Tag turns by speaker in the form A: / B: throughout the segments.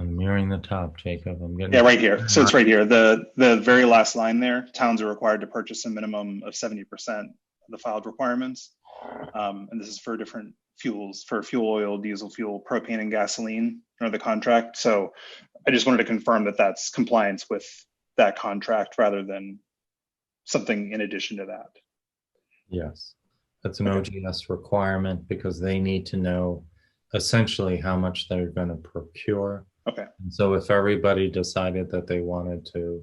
A: nearing the top, Jacob. I'm getting
B: Yeah, right here. So it's right here. The the very last line there. Towns are required to purchase a minimum of seventy percent of the filed requirements. Um, and this is for different fuels, for fuel oil, diesel fuel, propane, and gasoline under the contract. So I just wanted to confirm that that's compliance with that contract rather than something in addition to that.
A: Yes, that's an OGS requirement because they need to know essentially how much they're gonna procure.
B: Okay.
A: And So if everybody decided that they wanted to,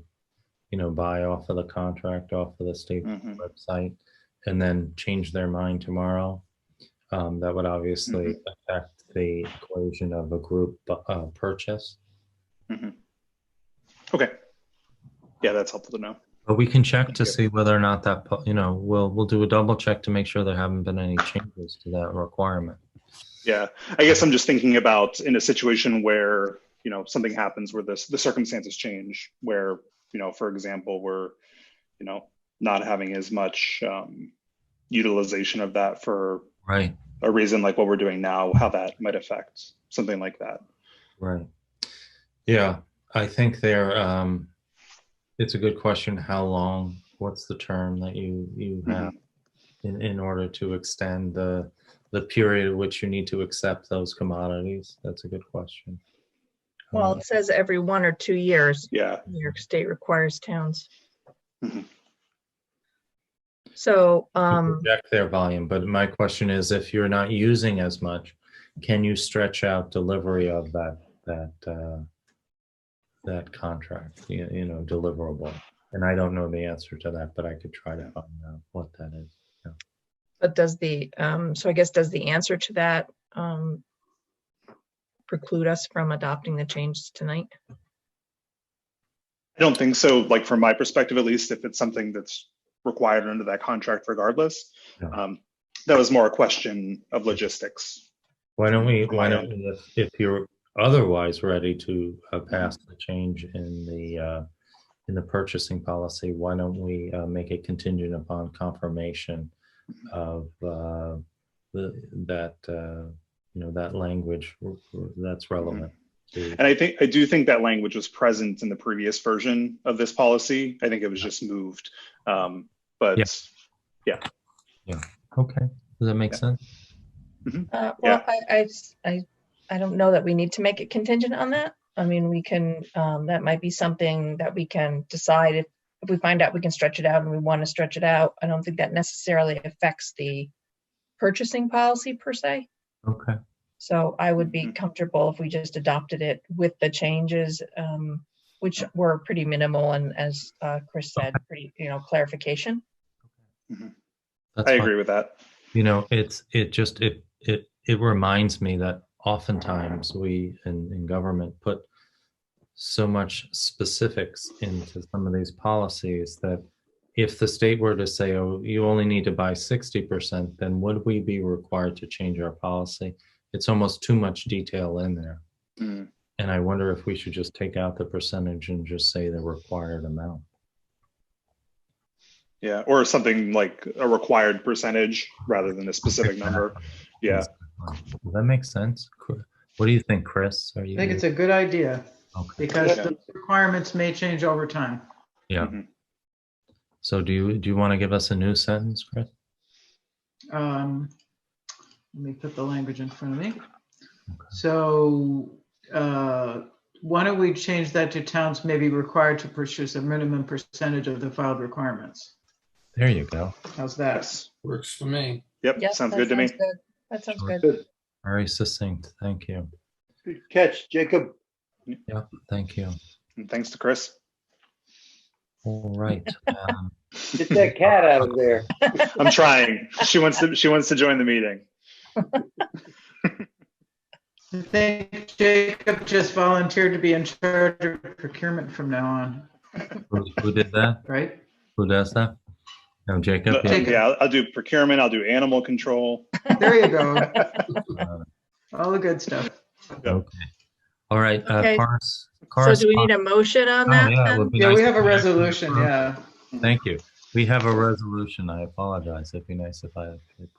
A: you know, buy off of the contract, off of the state
B: Mhm.
A: website, and then change their mind tomorrow, um, that would obviously
B: Mm-hmm.
A: affect the equation of a group, uh, purchase.
B: Okay. Yeah, that's helpful to know.
A: But we can check
B: Thank
A: to
B: you.
A: see whether or not that, po- you know, we'll, we'll do a double check to make sure there haven't been any changes to that requirement.
B: Yeah, I guess I'm just thinking about in a situation where, you know, something happens where this, the circumstances change, where, you know, for example, we're, you know, not having as much um, utilization of that for
A: Right.
B: a reason like what we're doing now, how that might affect something like that.
A: Right. Yeah, I think they're, um, it's a good question, how long, what's the term that you, you
B: Mm-hmm.
A: have in, in order to extend the, the period at which you need to accept those commodities? That's a good question.
C: Well,
A: Uh,
C: it says every one or two years,
B: Yeah,
C: New York State requires towns.
B: Mhm.
C: So,
A: to
C: um,
A: project their volume, but my question is if you're not using as much, can you stretch out delivery of that, that, uh, that contract, you, you know, deliverable? And I don't know the answer to that, but I could try to find out what that is.
C: but does the, um, so I guess does the answer to that, um, preclude us from adopting the changes tonight?
B: I don't think so. Like from my perspective, at least, if it's something that's required under that contract, regardless.
A: Yeah.
B: Um, that was more a question of logistics.
A: Why don't we, why don't, we, if- if you're otherwise ready to uh, pass the change in the, uh, in the purchasing policy, why don't we uh, make it contingent upon confirmation of uh, the, that, uh, you know, that language r- r- that's relevant to,
B: Mm-hmm. And I think, I do think that language was present in the previous version of this policy. I think it was just moved. Um, but
A: Yeah. okay, does that make
B: Yeah.
A: sense?
C: Uh, well,
B: Yeah.
C: I, I, s- I, I don't know that we need to make it contingent on that. I mean, we can, um, that might be something that we can decide if, if we find out we can stretch it out and we want to stretch it out. I don't think that necessarily affects the purchasing policy per se.
A: Okay,
C: So I would be
B: Mhm.
C: comfortable if we just adopted it with the changes, um, which were pretty minimal and as, uh, Chris said, pretty, you know, clarification.
A: that's
B: I
A: fine.
B: agree with that.
A: You know, it's, it just, it, it, it reminds me that oftentimes we in, in government put so much specifics into some of these policies that if the state were to say, oh, you only need to buy sixty percent, then would we be required to change our policy? It's almost too much detail in there.
B: Mm.
A: And I wonder if we should just take out the percentage and just say the required amount.
B: Yeah, or something like a required percentage rather than a specific number. Yeah,
A: Does that make sense? Cr- What do you think, Chris? Are you?
D: I think it's a good idea
A: Okay.
D: because
B: Yeah.
D: the requirements may change over time.
A: Yeah.
B: Mhm.
A: So do you, do you want to give us a new sentence, Chris?
D: Um, Let me put the language in front of me. So uh, why don't we change that to towns may be required to purchase a minimum percentage of the filed requirements?
A: There you go.
D: How's that?
B: yes.
E: Works for me.
B: Yep,
C: Yes,
B: sounds
C: that
B: good to me.
C: sounds good. That sounds
A: Sure.
C: good.
A: Very succinct. Thank you.
F: Good catch, Jacob.
A: Yeah, thank you.
B: And thanks to Chris.
A: All right. um,
F: Get that cat out of there.
B: I'm trying. She wants to she wants to join the meeting.
D: I think Jacob just volunteered to be in charge of procurement from now on,
A: Who who did that?
D: right?
A: Who does that? No, Jacob?
B: But,
A: yeah.
D: Jacob.
B: yeah, I'll- I'll do procurement, I'll do animal control.
D: There you go.
A: Uh,
D: All the good stuff.
A: Okay. All right. uh,
C: Okay.
A: Cars.
C: So do we need a motion
A: Oh,
C: on that? then?
D: Yeah, we have a resolution, yeah.
A: Thank you. We have a resolution. I apologize. It'd be nice if I could